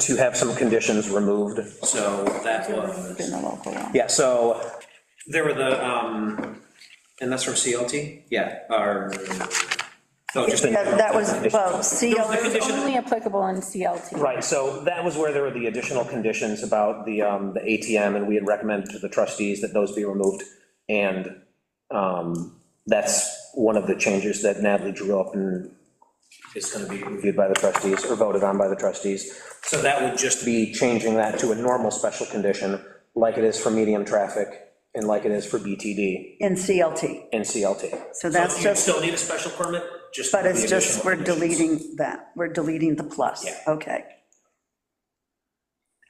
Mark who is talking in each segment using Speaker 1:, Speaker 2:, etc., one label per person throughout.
Speaker 1: to have some conditions removed, so that
Speaker 2: in
Speaker 1: was,
Speaker 2: the local law.
Speaker 1: yeah, so, there were the, um, and that's from CLT? Yeah, or, no, just. in-
Speaker 2: That that was, well,
Speaker 1: There was a
Speaker 2: CLT is
Speaker 1: condition-
Speaker 2: only applicable in CLT.
Speaker 1: Right, so that was where there were the additional conditions about the, um, the ATM, and we had recommended to the trustees that those be removed. And, um, that's one of the changes that Natalie drew up and is gonna be reviewed by the trustees, or voted on by the trustees. So that would just be changing that to a normal special condition, like it is for medium traffic, and like it is for BTD
Speaker 3: in CLT.
Speaker 1: and CLT.
Speaker 3: So that's
Speaker 1: You
Speaker 3: just,
Speaker 1: still need a special permit, just.
Speaker 3: but
Speaker 1: with
Speaker 3: it's
Speaker 1: the
Speaker 3: just,
Speaker 1: additional
Speaker 3: we're
Speaker 1: conditions.
Speaker 3: deleting that, we're deleting the plus.
Speaker 1: Yeah.
Speaker 3: Okay.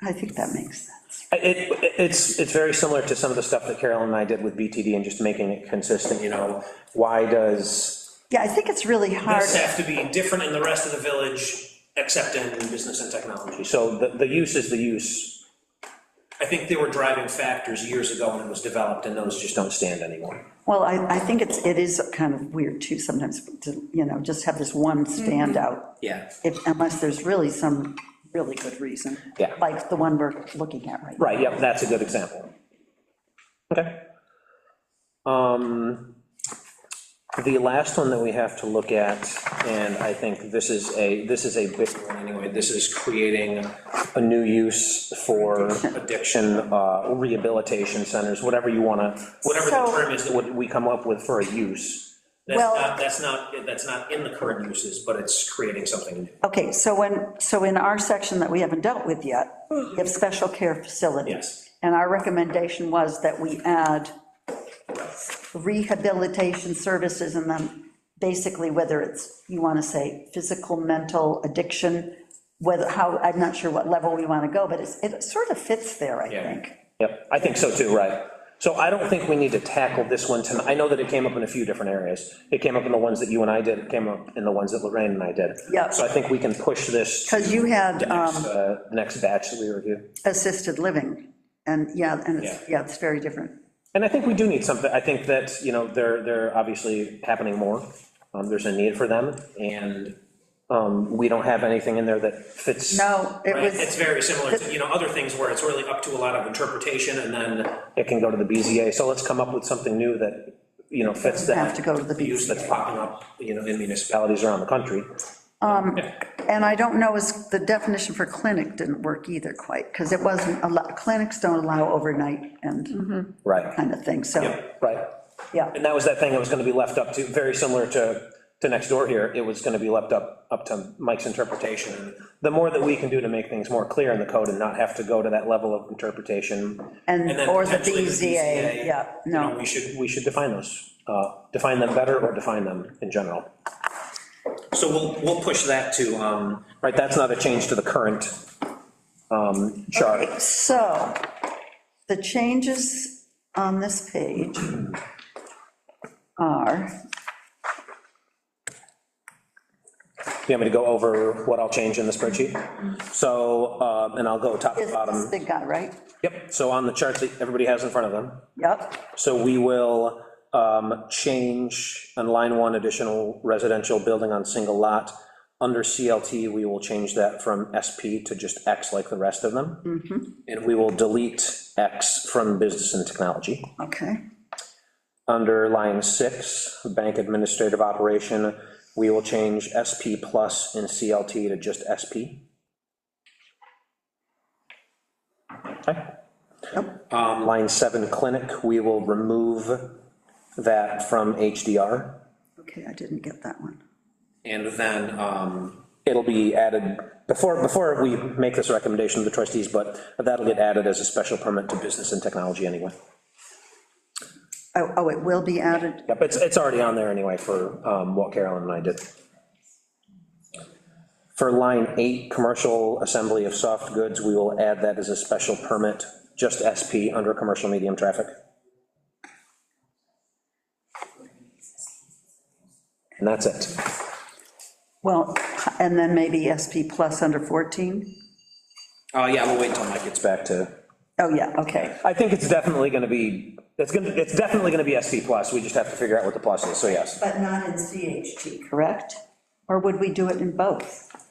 Speaker 3: I think that makes sense.
Speaker 1: It, it's, it's very similar to some of the stuff that Carolyn and I did with BTD and just making it consistent, you know, why does,
Speaker 3: Yeah, I think it's really hard.
Speaker 4: This have to be different in the rest of the village, except in business and technology.
Speaker 1: so the, the use is the use,
Speaker 4: I think there were driving factors years ago when it was developed, and those
Speaker 1: just
Speaker 4: just,
Speaker 1: don't stand anymore.
Speaker 3: Well, I, I think it's, it is kind of weird too sometimes, to, you know, just have this one
Speaker 2: Mm-hmm.
Speaker 3: standout.
Speaker 1: Yeah.
Speaker 3: If, unless there's really some really good reason.
Speaker 1: Yeah.
Speaker 3: Like the one we're looking at right now.
Speaker 1: Right, yep, that's a good example. Okay. Um, The last one that we have to look at, and I think this is a, this is a big one anyway, this is creating a new use for addiction, uh, rehabilitation centers, whatever you want to,
Speaker 4: whatever the
Speaker 3: So-
Speaker 4: term is, that-
Speaker 1: what we come up with for a use.
Speaker 4: that's
Speaker 3: Well-
Speaker 4: not, that's not, that's not in the current uses, but it's creating something new.
Speaker 3: Okay, so when, so in our section that we haven't dealt with yet, we have special care facilities.
Speaker 4: Yes.
Speaker 3: And our recommendation was that we add rehabilitation services and then basically whether it's, you want to say, physical, mental, addiction, whether, how, I'm not sure what level we want to go, but it's, it sort of fits there, I
Speaker 4: Yeah.
Speaker 3: think.
Speaker 1: Yep, I think so too, right. So I don't think we need to tackle this one tonight. I know that it came up in a few different areas. It came up in the ones that you and I did, it came up in the ones that Lorraine and I did.
Speaker 3: Yeah.
Speaker 1: So I think we can push this to
Speaker 3: Because you had um,
Speaker 1: the next batch that we review.
Speaker 3: assisted living, and, yeah, and, it's- yeah, it's very different.
Speaker 1: And I think we do need something, I think that, you know, they're, they're obviously happening more. Um, There's a need for them, and um, we don't have anything in there that fits.
Speaker 3: No, it
Speaker 4: Right?
Speaker 3: was.
Speaker 4: It's very similar to, you know, other things where it's really up to a lot of interpretation, and then
Speaker 1: It can go to the BZA, so let's come up with something new that, you know, fits that.
Speaker 3: Have to go to the
Speaker 1: Use that's
Speaker 3: BZA.
Speaker 1: popping up, you know, in municipalities around the country.
Speaker 3: And I don't know, is, the definition for clinic didn't work either quite, because it wasn't, allo- clinics don't allow overnight and
Speaker 1: Right.
Speaker 3: kind of thing, so,
Speaker 1: Right.
Speaker 3: yeah.
Speaker 1: And that was that thing that was gonna be left up to, very similar to, to next door here, it was gonna be left up, up to Mike's interpretation. And The more that we can do to make things more clear in the code and not have to go to that level of interpretation,
Speaker 3: And,
Speaker 4: and then
Speaker 3: or the
Speaker 4: potentially the
Speaker 1: E
Speaker 3: BZA, yeah,
Speaker 4: you know,
Speaker 3: no.
Speaker 4: we should,
Speaker 1: we should define those, uh, define them better or define them in general.
Speaker 4: so we'll, we'll push that to, um,
Speaker 1: Right, that's not a change to the current um, chart.
Speaker 3: So, the changes on this page are,
Speaker 1: You want me to go over what I'll change in the spreadsheet? So, um, and I'll go top to
Speaker 3: is this
Speaker 1: bottom.
Speaker 3: big guy, right?
Speaker 1: Yep, so on the chart that everybody has in front of them,
Speaker 3: Yep,
Speaker 1: So we will um, change, on line one, additional residential building on single lot. Under CLT, we will change that from SP to just X like the rest of them. And we will delete X from business and technology.
Speaker 3: okay,
Speaker 1: Under line six, bank administrative operation, we will change SP plus in CLT to just SP. Okay. Um, Line seven, clinic, we will remove that from HDR.
Speaker 3: okay, I didn't get that one.
Speaker 4: and then, um,
Speaker 1: It'll be added, before, before we make this recommendation to the trustees, but that'll get added as a special permit to business and technology anyway.
Speaker 3: Oh, oh, it will be added,
Speaker 1: Yep, it's, it's already on there anyway for um, what Carolyn and I did. For line eight, commercial assembly of soft goods, we will add that as a special permit, just SP under commercial medium traffic. And that's it.
Speaker 3: well, and then maybe SP plus under 14?
Speaker 4: uh, yeah, we'll wait until Mike gets
Speaker 1: It's back to,
Speaker 3: Oh, yeah, okay.
Speaker 1: I think it's definitely gonna be, it's gonna, it's definitely gonna be SP plus, we just have to figure out what the plus is, so yes.
Speaker 3: But not in CHT, correct? Or would we do it in both?